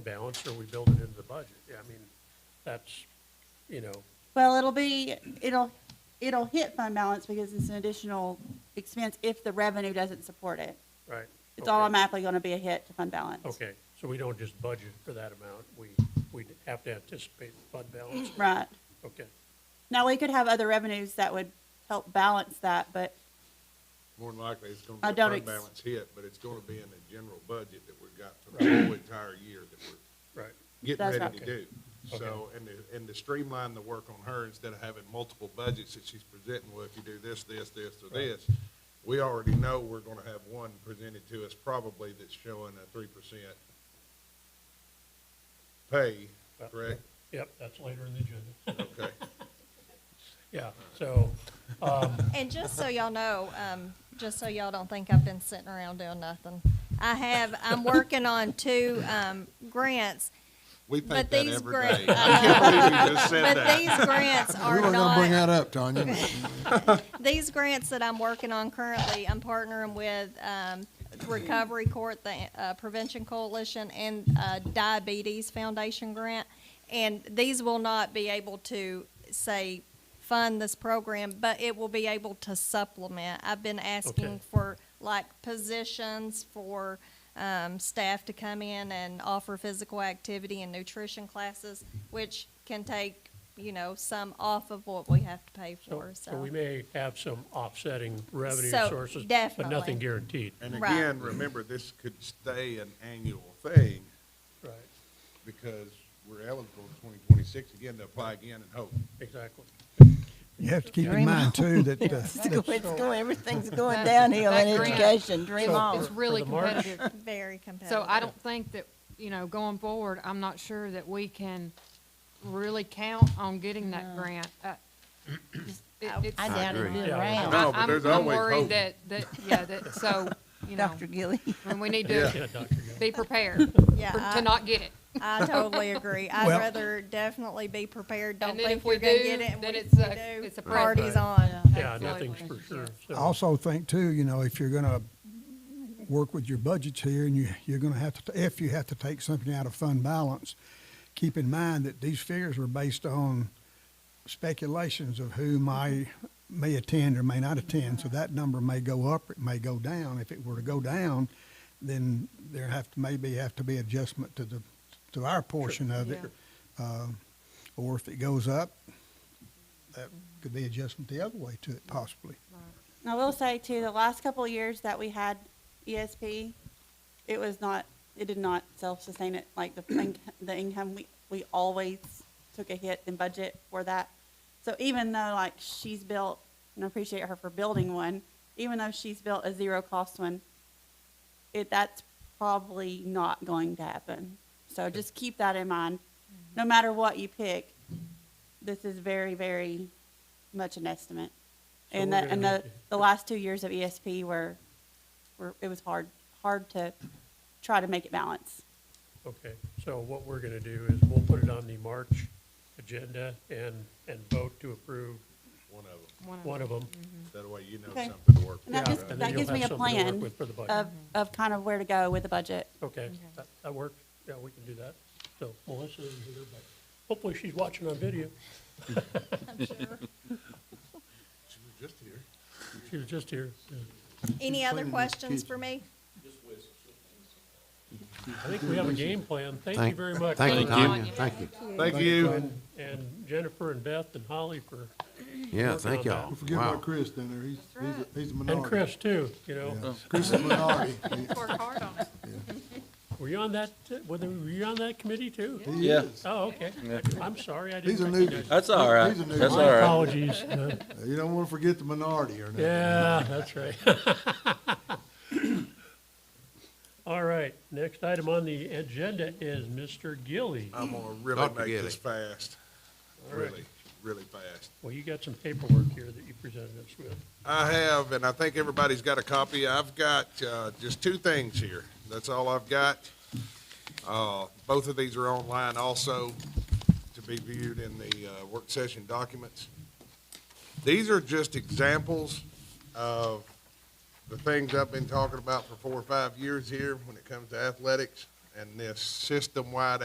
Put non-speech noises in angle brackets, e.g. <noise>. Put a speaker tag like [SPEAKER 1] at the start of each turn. [SPEAKER 1] balance or we build it into the budget. Yeah, I mean, that's, you know,
[SPEAKER 2] Well, it'll be, it'll, it'll hit fund balance because it's an additional expense if the revenue doesn't support it.
[SPEAKER 1] right.
[SPEAKER 2] It's
[SPEAKER 1] okay.
[SPEAKER 2] automatically gonna be a hit to fund balance.
[SPEAKER 1] Okay, so we don't just budget for that amount. We, we have to anticipate the fund balance.
[SPEAKER 2] Right.
[SPEAKER 1] Okay,
[SPEAKER 2] Now, we could have other revenues that would help balance that, but
[SPEAKER 3] More than likely, it's gonna
[SPEAKER 2] I
[SPEAKER 3] be a
[SPEAKER 2] don't
[SPEAKER 3] fund
[SPEAKER 2] ex-
[SPEAKER 3] balance hit, but it's gonna be in the general budget that we've got for the whole entire year that we're
[SPEAKER 1] right,
[SPEAKER 3] getting
[SPEAKER 2] That's
[SPEAKER 3] ready
[SPEAKER 2] right.
[SPEAKER 3] to do. So, and to, and to streamline the work on her, instead of having multiple budgets that she's presenting, well, if you do this, this, this, or this, we already know we're gonna have one presented to us probably that's showing a three percent pay,
[SPEAKER 1] Well,
[SPEAKER 3] correct?
[SPEAKER 1] yep, that's later in the agenda. <laughs>
[SPEAKER 3] Okay.
[SPEAKER 1] Yeah, so,
[SPEAKER 3] <laughs>
[SPEAKER 4] And just so y'all know, um, just so y'all don't think I've been sitting around doing nothing, I have, I'm working on two, um, grants,
[SPEAKER 3] We think
[SPEAKER 4] But
[SPEAKER 3] that
[SPEAKER 4] these
[SPEAKER 3] every
[SPEAKER 4] grant-
[SPEAKER 3] day. I can't believe you just said
[SPEAKER 4] but
[SPEAKER 3] that.
[SPEAKER 4] these grants are
[SPEAKER 5] We were gonna bring
[SPEAKER 4] not,
[SPEAKER 5] that up, Tanya.
[SPEAKER 4] these grants that I'm working on currently, I'm partnering with, um, Recovery Court, the, uh, Prevention Coalition, and, uh, Diabetes Foundation grant. And these will not be able to, say, fund this program, but it will be able to supplement. I've been
[SPEAKER 1] Okay.
[SPEAKER 4] asking for like positions for um, staff to come in and offer physical activity and nutrition classes, which can take, you know, some off of what we have to pay
[SPEAKER 1] so,
[SPEAKER 4] for,
[SPEAKER 1] so we
[SPEAKER 4] so.
[SPEAKER 1] may have some offsetting revenue
[SPEAKER 4] So,
[SPEAKER 1] sources, but
[SPEAKER 4] definitely.
[SPEAKER 1] nothing guaranteed.
[SPEAKER 3] And
[SPEAKER 4] Right.
[SPEAKER 3] again, remember, this could stay an annual thing
[SPEAKER 1] Right,
[SPEAKER 3] because we're eligible in twenty twenty-six again to apply again and hope.
[SPEAKER 1] exactly.
[SPEAKER 5] You have to keep
[SPEAKER 6] Dream
[SPEAKER 5] in mind too that, uh, that
[SPEAKER 6] It's going, everything's <laughs> going
[SPEAKER 7] downhill in
[SPEAKER 6] That grant
[SPEAKER 7] education, dream
[SPEAKER 6] It's
[SPEAKER 7] on.
[SPEAKER 6] really
[SPEAKER 1] the March?
[SPEAKER 6] competitive.
[SPEAKER 4] Very competitive.
[SPEAKER 6] So I don't think that, you know, going forward, I'm not sure that we can really count on getting that grant. Uh, just- it- it's-
[SPEAKER 7] I doubt it'd be
[SPEAKER 1] Yeah.
[SPEAKER 7] around,
[SPEAKER 3] No,
[SPEAKER 6] I'm-
[SPEAKER 3] but there's
[SPEAKER 6] I'm
[SPEAKER 3] always hope.
[SPEAKER 6] worried that, that, yeah, that, so, you know,
[SPEAKER 7] Dr. Gilly.
[SPEAKER 6] and we need
[SPEAKER 3] Yeah.
[SPEAKER 6] to
[SPEAKER 1] Yeah, Dr. Gill.
[SPEAKER 6] be prepared
[SPEAKER 4] Yeah,
[SPEAKER 6] for-
[SPEAKER 4] I-
[SPEAKER 6] to not get it.
[SPEAKER 4] I totally
[SPEAKER 6] <laughs>
[SPEAKER 4] agree. I'd
[SPEAKER 5] Well-
[SPEAKER 4] rather definitely be prepared. Don't
[SPEAKER 6] And then
[SPEAKER 4] think
[SPEAKER 6] if we
[SPEAKER 4] you're gonna get
[SPEAKER 6] do,
[SPEAKER 4] it. and
[SPEAKER 6] then
[SPEAKER 4] we-
[SPEAKER 6] it's
[SPEAKER 4] we
[SPEAKER 6] a,
[SPEAKER 4] do.
[SPEAKER 6] it's a. present.
[SPEAKER 4] Party's on.
[SPEAKER 1] Yeah,
[SPEAKER 6] Absolutely.
[SPEAKER 1] nothing's for sure, so.
[SPEAKER 5] I also think too, you know, if you're gonna work with your budgets here and you, you're gonna have to, if you have to take something out of fund balance, keep in mind that these figures are based on speculations of who may, may attend or may not attend. So that number may go up, it may go down. If it were to go down, then there have to, maybe have to be adjustment to the, to our portion of it.
[SPEAKER 6] Yeah.
[SPEAKER 5] Um, Or if it goes up, that could be adjustment the other way to it possibly.
[SPEAKER 2] I will say too, the last couple of years that we had ESP, it was not, it did not self-sustain it, like the, inc- the income, we, we always took a hit in budget for that. So even though like she's built, and I appreciate her for building one, even though she's built a zero-cost one, it, that's probably not going to happen. So just keep that in mind. No matter what you pick, this is very, very much an estimate.
[SPEAKER 1] So
[SPEAKER 2] And the,
[SPEAKER 1] we're gonna
[SPEAKER 2] and the,
[SPEAKER 1] have to-
[SPEAKER 2] the last two years of ESP were, were, it was hard, hard to try to make it balance.
[SPEAKER 1] Okay, so what we're gonna do is we'll put it on the March agenda and, and vote to approve
[SPEAKER 3] One of them.
[SPEAKER 6] One of
[SPEAKER 1] one of them.
[SPEAKER 3] That way you know
[SPEAKER 2] Okay.
[SPEAKER 3] something to work
[SPEAKER 2] And that
[SPEAKER 3] with.
[SPEAKER 2] Mm-hmm. just,
[SPEAKER 1] And then
[SPEAKER 2] that
[SPEAKER 1] you'll
[SPEAKER 2] gives me a
[SPEAKER 1] have something to work
[SPEAKER 2] plan
[SPEAKER 1] with For the budget.
[SPEAKER 2] of, Mm-hmm. of kind of where to go with the budget.
[SPEAKER 1] Okay, that, that works. Yeah, we can do that. So Melissa is here, but hopefully she's watching on video.
[SPEAKER 3] She was just here.
[SPEAKER 1] She was just here. Yeah.
[SPEAKER 4] Any other questions for me?
[SPEAKER 1] I think we have a game plan. Thank you
[SPEAKER 8] Thank-
[SPEAKER 1] very much.
[SPEAKER 8] Thank you,
[SPEAKER 6] Thank you.
[SPEAKER 8] Tanya. Thank you.
[SPEAKER 3] Thank you.
[SPEAKER 1] And Jennifer and Beth and Holly for,
[SPEAKER 8] Yeah, thank
[SPEAKER 1] Working on
[SPEAKER 8] y'all.
[SPEAKER 1] that.
[SPEAKER 5] Forget
[SPEAKER 8] Wow.
[SPEAKER 5] about Chris down there, he's, he's a- he's a minority.
[SPEAKER 1] and Chris too, you know.
[SPEAKER 5] Chris is a minority. He-
[SPEAKER 6] Work hard on it.
[SPEAKER 1] Were you on that, uh, were they- were you on that committee too?
[SPEAKER 5] he
[SPEAKER 9] Yeah,
[SPEAKER 5] is.
[SPEAKER 1] Oh, okay. I'm sorry, I
[SPEAKER 5] He's a
[SPEAKER 1] didn't
[SPEAKER 5] newbie.
[SPEAKER 1] recognize.
[SPEAKER 9] that's all right.
[SPEAKER 5] He's a new
[SPEAKER 9] That's
[SPEAKER 5] one.
[SPEAKER 9] all right.
[SPEAKER 1] Apologies.
[SPEAKER 5] <laughs>
[SPEAKER 1] Uh,
[SPEAKER 5] You don't wanna forget the minority or nothing.
[SPEAKER 1] Yeah, that's right. <laughs> All right, next item on the agenda is Mr. Gilly.
[SPEAKER 3] I'm gonna really
[SPEAKER 8] Dr.
[SPEAKER 3] make
[SPEAKER 8] Giddy.
[SPEAKER 3] this fast. Really, really fast.
[SPEAKER 1] Well, you got some paperwork here that you presented us with.
[SPEAKER 3] I have, and I think everybody's got a copy. I've got uh, just two things here. That's all I've got. Uh, Both of these are online also to be viewed in the uh, work session documents. These are just examples of the things I've been talking about for four or five years here when it comes to athletics and this system-wide